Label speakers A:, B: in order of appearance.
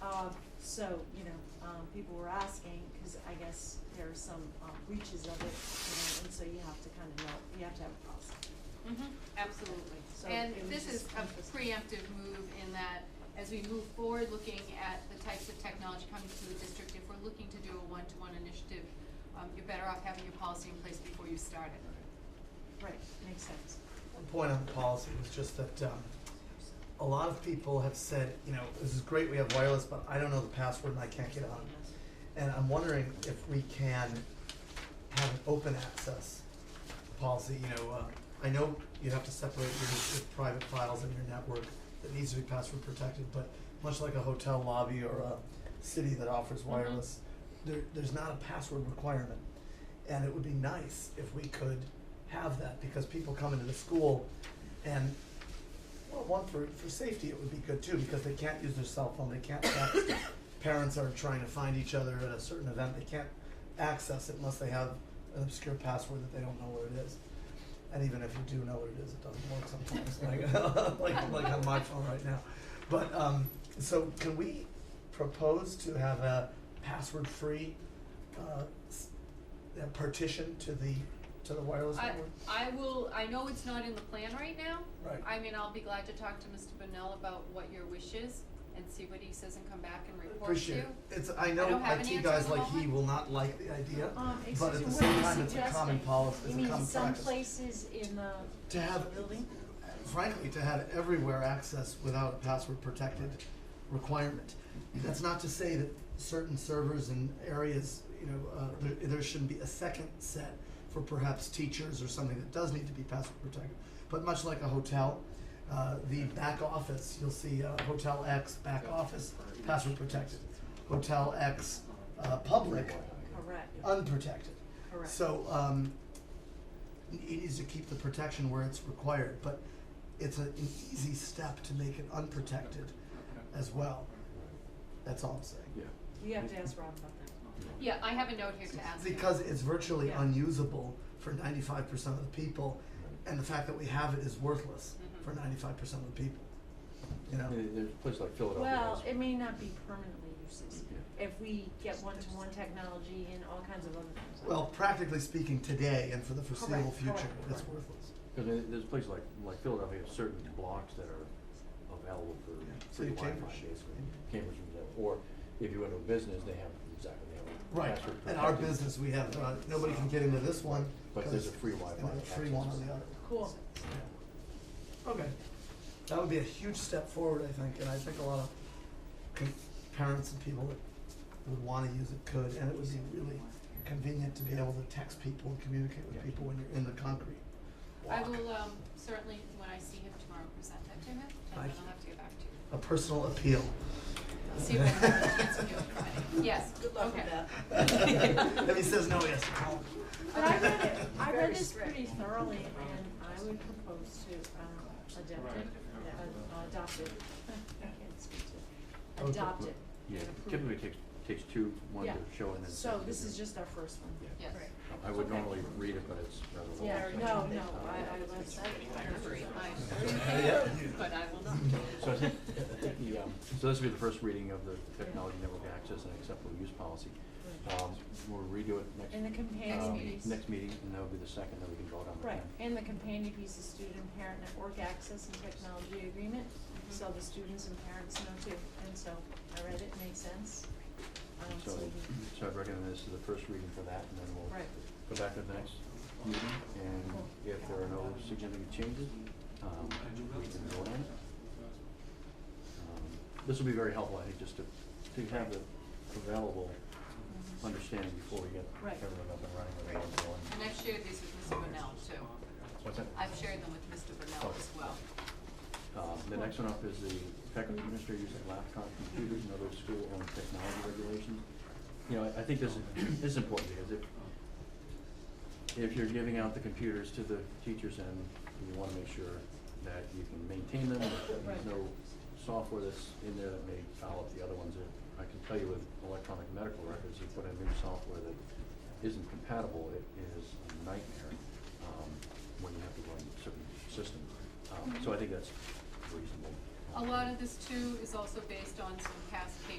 A: dog, Uh, so, you know, um, people were asking, cause I guess there are some, um, reaches of it, you know, and so you have to kinda know, you have to have a process.
B: Mhm, absolutely.
A: Mm-hmm, So
B: And
A: it was
B: this is
A: just
B: a
A: interesting.
B: preemptive move in that as we move forward, looking at the types of technology coming to the district, if we're looking to do a one-to-one initiative, um, you're better off having your policy in place before you start it.
A: Right, makes sense.
C: One point on the policy was just that um, a lot of people have said, you know, this is great, we have wireless, but I don't know the password and I can't get on. And I'm wondering if we can have an open access policy, you know, uh, I know you have to separate your, your private files in your network that needs to be password protected, but much like a hotel lobby or a city that offers wireless, there, there's not a password requirement. And it would be nice if we could have that, because people come into the school and, well, one, for, for safety, it would be good too, because they can't use their cell phone, they can't text. Parents are trying to find each other at a certain event, they can't access it unless they have an obscure password that they don't know where it is. And even if you do know what it is, it doesn't work sometimes, like, like, like on my phone right now. But, um, so can we propose to have a password-free, uh, s- uh, partition to the, to the wireless
B: I,
C: network?
B: I will, I know it's not in the plan right now.
C: Right.
B: I mean, I'll be glad to talk to Mr. Bunnell about what your wish is and see what he says and come back and report to
C: Appreciate
B: you.
C: it. It's, I know
B: don't have an
C: IT
B: answer
C: guys
B: at the
C: like he
B: moment.
C: will not like the idea,
A: Um, excuse
C: but at
A: me,
C: the
A: what are
C: same
A: you
C: time, it's a common
A: suggesting?
C: policy, it's a common
A: You mean
C: practice.
A: some places in the
C: To have,
A: building?
C: frankly, to have everywhere access without a password protected requirement. That's not to say that certain servers and areas, you know, uh, there, there shouldn't be a second set for perhaps teachers or something that does need to be password protected. But much like a hotel, uh, the back office, you'll see uh, Hotel X back office password protected, Hotel X uh, public
A: Correct,
C: unprotected.
A: correct.
C: So, um, it needs to keep the protection where it's required, but it's a, an easy step to make it unprotected as well. That's all I'm saying.
D: Yeah.
A: You have to ask Rob about that.
B: Yeah, I have a note here to ask him.
C: Because it's virtually
A: Yeah.
C: unusable for ninety-five percent of the people, and the fact that we have it is worthless
A: Mm-hmm.
B: Mhm.
C: for ninety-five percent of the people, you know?
D: Yeah, There's a place like Philadelphia.
A: Well,
D: has-
A: it may not be permanently uses,
D: Yeah.
A: if we get one-to-one technology and all kinds of other things.
C: Well, practically speaking, today and for the foreseeable
A: Correct,
C: future,
A: correct,
C: it's
A: correct.
C: worthless.
D: Cause there- there's places like, like Philadelphia, have certain blocks that are available for
C: Yeah,
D: free
C: City of
D: Wi-Fi,
C: Cambridge.
D: basically. Cambridge, for example. or if you went to a business, they have, exactly, they have. a
C: Right,
D: password
C: in our
D: protected,
C: business, we have, uh, nobody can get into this one.
D: But there's
C: 'cause-
D: a free Wi-Fi.
C: And a free one on
D: access.
C: the other.
A: Cool.
C: Okay. That would be a huge step forward, I think, and I think a lot of con- parents and people that would wanna use it could, and it would be really convenient to be able to text people and communicate with
D: Yeah.
C: people when you're in the concrete
B: I
C: walk.
A: uh,
B: will, um, certainly, when I see him tomorrow, present that to him, and
C: Thank
B: then
C: you.
B: I'll have to get back to you.
C: A personal appeal.
B: See what chance we do it Friday. Yes,
E: Good luck with
B: okay.
E: that.
C: If he says no, he has to call him.
A: But I read it, I
E: Very
A: read this
E: strict.
A: pretty thoroughly, and I would propose to, um, adopt it, uh, adopt it. I can't speak to it.
C: Okay.
A: Adopt it.
D: Yeah,
A: and approve
D: typically
A: it.
D: it takes, takes two, one to
A: Yeah.
D: show and then.
A: So
D: second
A: this
D: to-
A: is just our first one.
D: Yeah.
B: Yes.
E: Right.
D: I would
A: Okay.
D: normally read it, but it's rather long.
A: Yeah,
D: so-
B: Oh,
A: no, no, I, I was,
B: I
C: Yeah.
B: but I will not.
D: So I think, I think the, um, so this will be the first reading of the technology network access and acceptable use policy. Um, we'll redo it next.
A: And the companion
D: um,
A: piece.
D: Next meeting, and that'll be the second that we can vote on.
A: Right, and the companion piece is student parent network access and technology agreement,
E: Mm-hmm.
A: so the students and parents know too, and so I read it, makes sense. Um,
D: So,
A: so we-
D: so I'd recommend this is the first reading for that, and then we'll
A: Right.
D: go back to the next meeting, and if there are no significant changes, um, we can vote on it. Um, This will be very helpful, I think, just to, to have the available
A: Mm-hmm.
D: understanding before we get
A: Right.
D: everyone up and running with the one going.
B: And I've shared these with Mr. Brunel too.
D: What's that?
B: I've shared them with Mr. Brunel as well.
D: Um, the next one up is the faculty
A: Mm-hmm.
D: administrator using laptop computers and other school-owned technology regulations. You know, I, I think this, is- this is important because if, if you're giving out the computers to the teachers and you wanna make sure that you can maintain them, that there's
A: Right.
D: no software that's in there that may foul up the other ones. I can tell you with electronic medical records, you put in new software that isn't compatible, it is a nightmare, um, when you have to run certain systems. Um, so I think that's reasonable.
B: A lot of this too is also based on some past cases